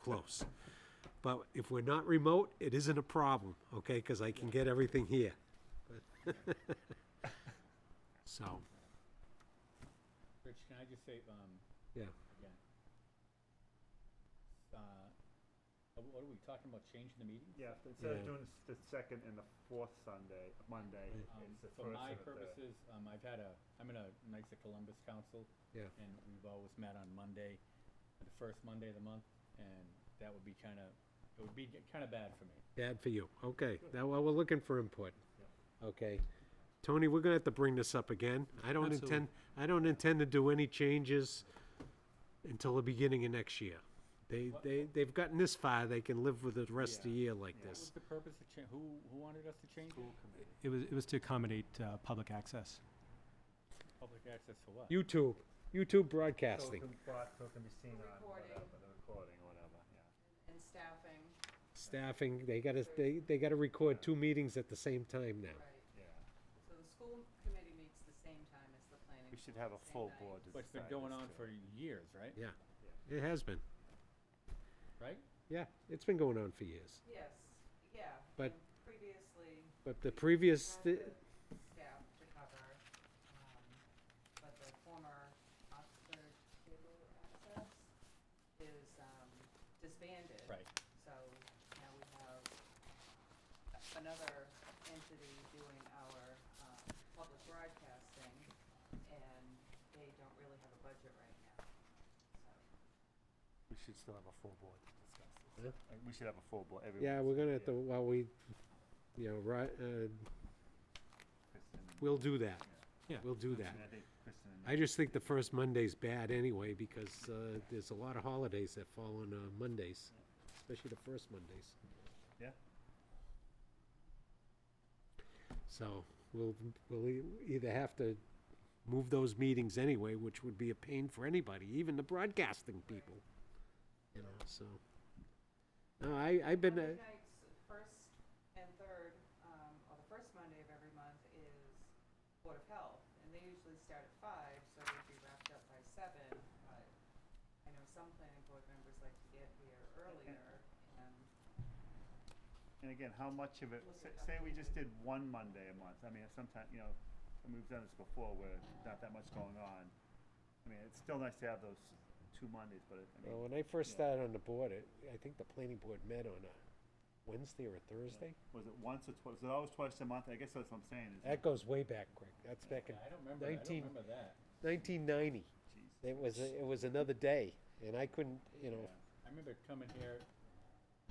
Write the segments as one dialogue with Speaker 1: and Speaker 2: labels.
Speaker 1: close. But if we're not remote, it isn't a problem, okay, because I can get everything here. So,
Speaker 2: Rich, can I just say, um,
Speaker 1: yeah,
Speaker 2: again, uh, uh, what are we talking about, changing the meeting?
Speaker 3: Yeah, instead
Speaker 1: Yeah.
Speaker 3: of doing s- the second and the fourth Sunday, Monday,
Speaker 2: Um,
Speaker 3: it's the
Speaker 2: For
Speaker 3: first
Speaker 2: my
Speaker 3: and the third.
Speaker 2: purposes, um, I've had a, I'm in a Knights of Columbus Council,
Speaker 1: yeah,
Speaker 2: and we've always met on Monday, the first Monday of the month, and that would be kinda, it would be kinda bad for me.
Speaker 1: bad for you, okay, now, well, we're looking for input, okay. Tony, we're gonna have to bring this up again, I don't intend, I don't intend to do any changes until the beginning of next year. They, they, they've gotten this far, they can live with the rest of the year like
Speaker 2: What was
Speaker 1: this,
Speaker 2: the purpose of cha, who, who wanted us to change it?
Speaker 4: It was, it was to accommodate uh, public access.
Speaker 2: Public access to what?
Speaker 1: YouTube, YouTube
Speaker 3: So it
Speaker 1: broadcasting,
Speaker 3: can, but, so it can be seen on
Speaker 5: Recording.
Speaker 3: whatever, the recording or whatever, yeah.
Speaker 5: and staffing,
Speaker 1: staffing, they gotta, they, they gotta record two meetings at the same time now.
Speaker 5: right,
Speaker 3: Yeah,
Speaker 5: so the school committee meets the same time as the planning.
Speaker 3: we should
Speaker 5: board,
Speaker 3: have a
Speaker 5: same
Speaker 3: full
Speaker 5: night.
Speaker 3: board.
Speaker 2: But it's been going on for years, right?
Speaker 1: Yeah, it has been.
Speaker 2: Right?
Speaker 1: Yeah, it's been going on for years.
Speaker 5: Yes, yeah. I
Speaker 1: But-
Speaker 5: mean, Previously,
Speaker 1: But the previous,
Speaker 5: had
Speaker 1: thi-
Speaker 5: the staff to cover, um, but the former Oxford cable access is, um, disbanded.
Speaker 2: Right.
Speaker 5: So now we have a- another entity doing our um, public broadcasting, and they don't really have a budget right now. So
Speaker 3: We should still have a full board to discuss
Speaker 1: Yeah.
Speaker 3: this. Uh, We should have a full board, everyone.
Speaker 1: yeah, we're gonna have to, while we, you know, right, uh, we'll do that.
Speaker 4: Yeah.
Speaker 1: We'll do that.
Speaker 3: I think Kristen and
Speaker 1: I just think the first Monday's bad anyway, because, uh, there's a lot of holidays that fall on, uh, Mondays, especially the first Mondays.
Speaker 3: Yeah.
Speaker 1: So, we'll, we'll e- either have to move those meetings anyway, which would be a pain for anybody, even the broadcasting people, you know, so. No, I, I've been, uh,
Speaker 5: Monday nights, first and third, um, or the first Monday of every month is Board of Health, and they usually start at five, so we'd be wrapped up by seven, but I know some planning board members like to get here earlier, and
Speaker 3: And again, how much of it,
Speaker 5: Look
Speaker 3: say,
Speaker 5: at
Speaker 3: say we
Speaker 5: updated.
Speaker 3: just did one Monday a month, I mean, sometimes, you know, and we've done this before where there's not that much going on. I mean, it's still nice to have those two Mondays, but it, I
Speaker 1: Well, when
Speaker 3: mean,
Speaker 1: I first
Speaker 3: Yeah.
Speaker 1: started on the board, it, I think the planning board met on a Wednesday or a Thursday.
Speaker 3: was it once or twice, was it always twice a month? I guess that's what I'm saying is,
Speaker 1: That goes way back, Greg. That's back in
Speaker 2: I don't remember, that. I don't
Speaker 1: 19
Speaker 2: remember that.
Speaker 1: nineteen ninety.
Speaker 3: geez.
Speaker 1: It was, a- it was another day, and I couldn't, you know,
Speaker 2: I remember coming here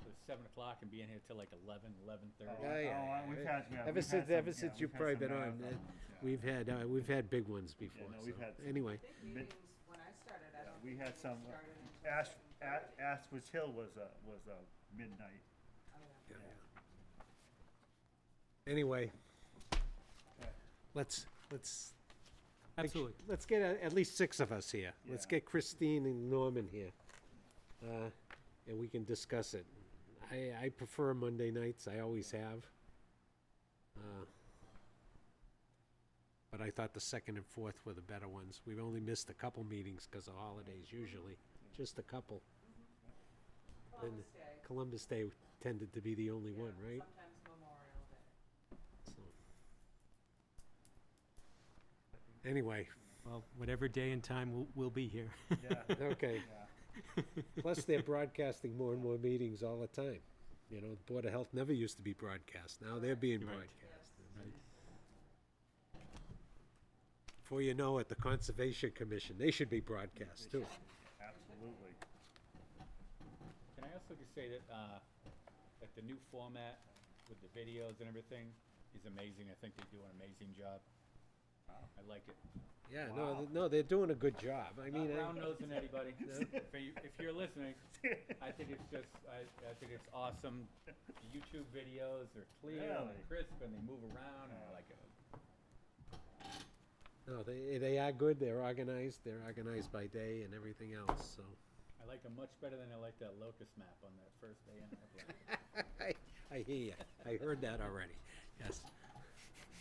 Speaker 2: at seven o'clock and being here till like eleven, eleven thirty.
Speaker 1: Yeah, yeah,
Speaker 3: Oh, we've
Speaker 1: yeah.
Speaker 3: had, yeah,
Speaker 1: ever
Speaker 3: we've had
Speaker 1: since,
Speaker 3: some-
Speaker 1: ever
Speaker 3: yeah,
Speaker 1: since
Speaker 3: we've
Speaker 1: you've
Speaker 3: had
Speaker 1: probably
Speaker 3: some
Speaker 1: been on,
Speaker 3: marathon
Speaker 1: uh,
Speaker 3: ones, yeah.
Speaker 1: we've had, uh, we've had big ones before,
Speaker 3: no,
Speaker 1: so,
Speaker 3: we've had some.
Speaker 1: anyway.
Speaker 5: big
Speaker 3: Mid-
Speaker 5: meetings, when I started, I
Speaker 3: Yeah,
Speaker 5: don't
Speaker 3: we
Speaker 5: think
Speaker 3: had
Speaker 5: they
Speaker 3: some, uh,
Speaker 5: started until
Speaker 3: Ash,
Speaker 5: seven
Speaker 3: A- Ashwich Hill was a, was a midnight.
Speaker 5: thirty. Oh, yeah.
Speaker 1: Anyway,
Speaker 3: Okay.
Speaker 1: let's, let's, Like,
Speaker 4: Absolutely.
Speaker 1: Let's get a- at least six of us here. Let's
Speaker 3: Yeah.
Speaker 1: get Christine and Norman here. Uh, And we can discuss it. I, I prefer Monday nights, I always have. Uh, But I thought the second and fourth were the better ones. We've only missed a couple meetings because of holidays usually, just a couple.
Speaker 5: Columbus Day.
Speaker 1: Columbus Day tended to be the only
Speaker 5: yeah,
Speaker 1: one, right?
Speaker 5: Sometimes Memorial Day.
Speaker 1: So. Anyway,
Speaker 4: Well, whatever day and time, we'll, we'll be here.
Speaker 3: Yeah,
Speaker 1: okay.
Speaker 3: yeah.
Speaker 1: Plus, they're broadcasting more and more meetings all the time. You know, the Board of Health never used to be broadcast. Now they're being
Speaker 4: Right.
Speaker 1: broadcast. Before you know it, the Conservation Commission, they should be broadcast too.
Speaker 3: Absolutely.
Speaker 2: Can I also just say that, uh, that the new format with the videos and everything is amazing. I think they do an amazing job. I like it.
Speaker 1: Yeah, no,
Speaker 3: Wow.
Speaker 1: th- no, they're doing a good job. I mean,
Speaker 2: Not
Speaker 1: I-
Speaker 2: round nosing anybody. If you, if you're listening, I think it's just, I, I think it's awesome. The YouTube videos are clear and
Speaker 3: Really?
Speaker 2: they're crisp and they move around and I like it.
Speaker 1: no, they, they are good. They're organized. They're organized by day and everything else, so.
Speaker 2: I like them much better than I like that locust map on that first day in. Upland.
Speaker 1: I, I hear you. I heard that already. Yes.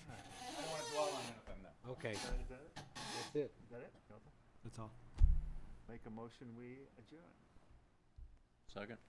Speaker 2: I don't wanna dwell on anything though.
Speaker 1: Okay,
Speaker 3: Is that is that it?
Speaker 1: that's it.
Speaker 3: Is that it? Nope.
Speaker 4: That's all.
Speaker 3: Make a motion, we adjourn.
Speaker 6: Second?